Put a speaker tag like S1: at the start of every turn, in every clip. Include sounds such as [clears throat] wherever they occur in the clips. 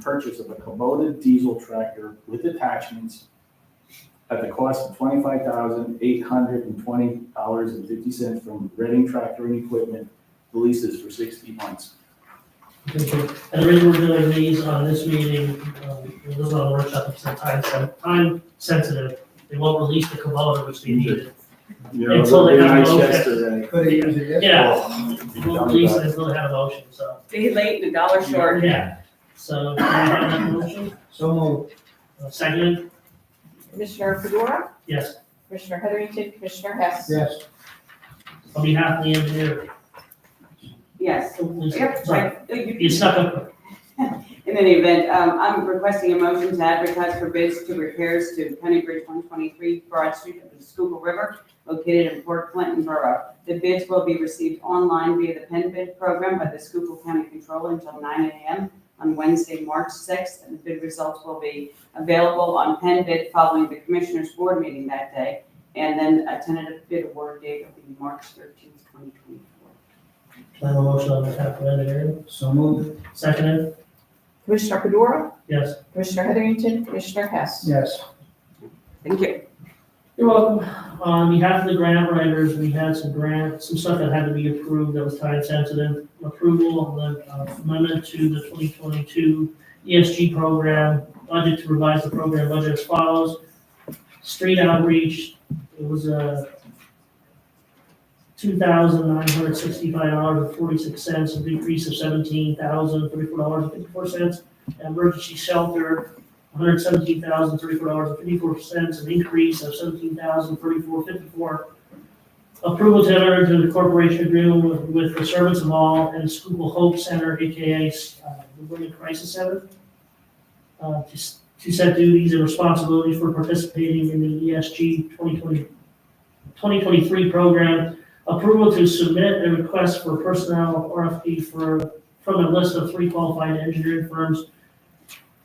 S1: purchase of a Kubota diesel tractor with attachments at the cost of twenty-five thousand, eight hundred and twenty dollars and fifty cents from Reading Tractor and Equipment, the lease is for sixty months.
S2: Okay, And the reason we're doing these on this meeting, um, it was on a workshop, it's not time, sen- time sensitive. They won't release the Kubota, which they needed.
S1: You
S2: know, Until they have a little bit.
S3: Could have used it yesterday.
S2: Yeah, they won't release it until they have a motion, so,
S4: Day late and a dollar short.
S2: yeah. So, do you have that motion?
S3: So moved.
S2: Uh, Second,
S5: Commissioner Fedora,
S2: yes,
S5: Commissioner Heatherington, Commissioner Hess.
S3: Yes.
S2: on behalf of the engineer.
S6: Yes.
S2: Lisa,
S6: Yep,
S2: Sorry,
S6: right. You-
S2: you stuck up,
S6: In any event, um, I'm requesting a motion to advertise for bids to repairs to County Bridge one twenty-three Broad Street of the Schuylkill River located in Port Clinton Borough. The bids will be received online via the Penn Bid Program by the Schuylkill County Controller until nine AM on Wednesday, March sixth, and the bid results will be available on Penn Bid following the Commissioners Board meeting that day. And then a tentative bid award date will be March thirteenth, twenty twenty-four.
S2: I have a motion on behalf of the engineer.
S3: So moved.
S2: Second,
S5: Commissioner Fedora,
S2: yes.
S5: Commissioner Heatherington, Commissioner Hess.
S3: Yes.
S6: Thank you.
S2: You're welcome. Uh, On behalf of the grant writers, we had some grant, some stuff that had to be approved that was time sensitive. Approval of the uh, amendment to the twenty twenty-two ESG program, budget to revise the program budget as follows. Street outreach, it was a two thousand nine hundred sixty-five dollars and forty-six cents, a decrease of seventeen thousand thirty-four dollars and fifty-four cents. Emergency shelter, one hundred seventeen thousand thirty-four dollars and fifty-four cents, an increase of seventeen thousand thirty-four fifty-four. Approval to enter into the corporation agreement with, with the Servants of All and Schuylkill Hope Center, AKA, uh, the Women Crisis Center, uh, to, s- to set duties and responsibilities for participating in the E ESG 2020 2023 program. Approval to submit a request for personnel RFP for, from a list of three qualified engineering firms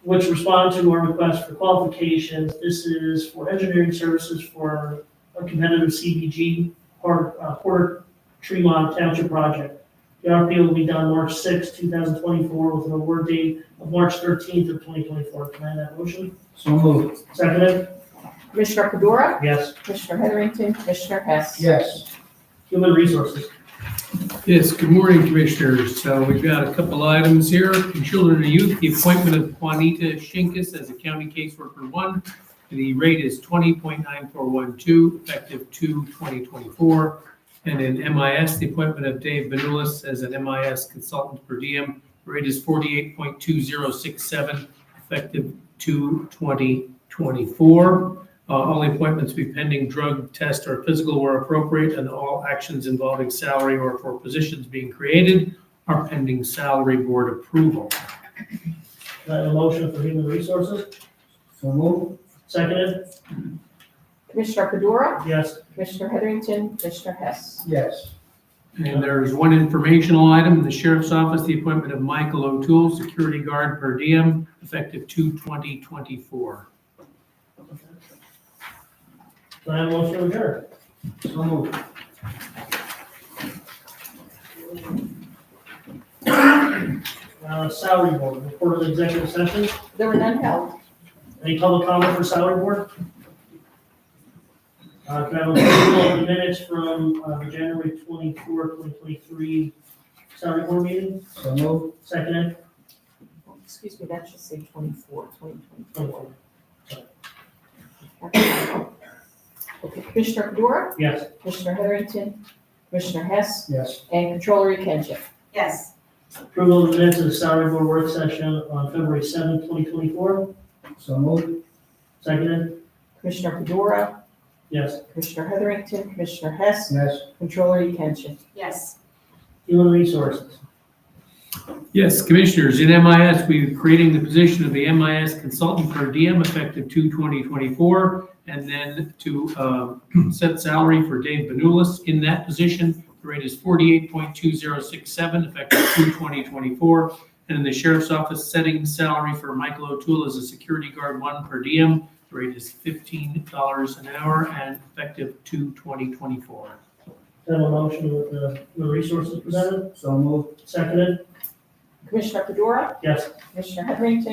S2: which respond to our request for qualifications. This is for engineering services for a competitive CBG or uh, Porter Tremont Township project. The RFP will be done March sixth, two thousand twenty-four, with an award date of March thirteenth of twenty twenty-four. Can I have that motion?
S3: So moved.
S2: Seconded?
S5: Commissioner Fedora,
S2: Yes.
S5: Commissioner Heatherington, Commissioner Hess.
S3: Yes.
S2: Human Resources.
S7: Yes, good morning, Commissioners. So we've got a couple items here. In Children and Youth, the appointment of Juanita Shinkus as a county caseworker one. The rate is twenty point nine four one two, effective 2 2024. And in MIS, the appointment of Dave Benulis as an MIS consultant per diem. Rate is forty-eight point two zero six seven, effective 2 2024. Uh, all appointments be pending drug test or physical where appropriate, and all actions involving salary or for positions being created are pending salary board approval.
S2: Can I have a motion for Human Resources?
S3: So moved.
S2: Seconded?
S5: Commissioner Fedora,
S2: Yes.
S5: Commissioner Heatherington, Commissioner Hess.
S3: Yes.
S7: And there is one informational item in the sheriff's office, the appointment of Michael O'Toole, security guard per diem, effective 2 2024
S2: Can I have a motion to adjourn?
S3: So moved.
S2: Uh, salary board, report of the executive session.
S5: There were none held.
S2: Any public comment for salary board? Uh, can I have a couple of minutes from, uh, January twenty-four, twenty twenty-three salary board meeting?
S3: So moved.
S2: Second,
S5: Oh, Excuse me, that should say twenty-four, twenty twenty-four.
S2: and-
S5: Okay, Commissioner Fedora,
S2: yes.
S5: Commissioner Heatherington, Commissioner Hess,
S3: Yes.
S5: and Controller Yekenship.
S6: Yes.
S2: Approval of the minutes of the salary board work session on February seventh, twenty twenty-four.
S3: So moved.
S2: Second,
S5: Commissioner Fedora,
S2: yes.
S5: Commissioner Heatherington, Commissioner Hess,
S3: Yes.
S5: Controller Yekenship.
S6: Yes.
S2: Human resources.
S7: Yes, Commissioners, in MIS, we're creating the position of the MIS consultant per diem effective 2/20/24, and then to um, [clears throat] set salary for Dave Benulis in that position. The rate is 48.2067 effective 2/20/24. And in the Sheriff's Office, setting salary for Michael O'Toole as a security guard one per diem. The rate is $15 an hour and effective 2/20/24.
S2: Can I have a motion with the, the resources presented?
S3: So moved.
S2: Seconded,
S5: Commissioner Fedora,
S2: yes.
S5: Commissioner Heatherington,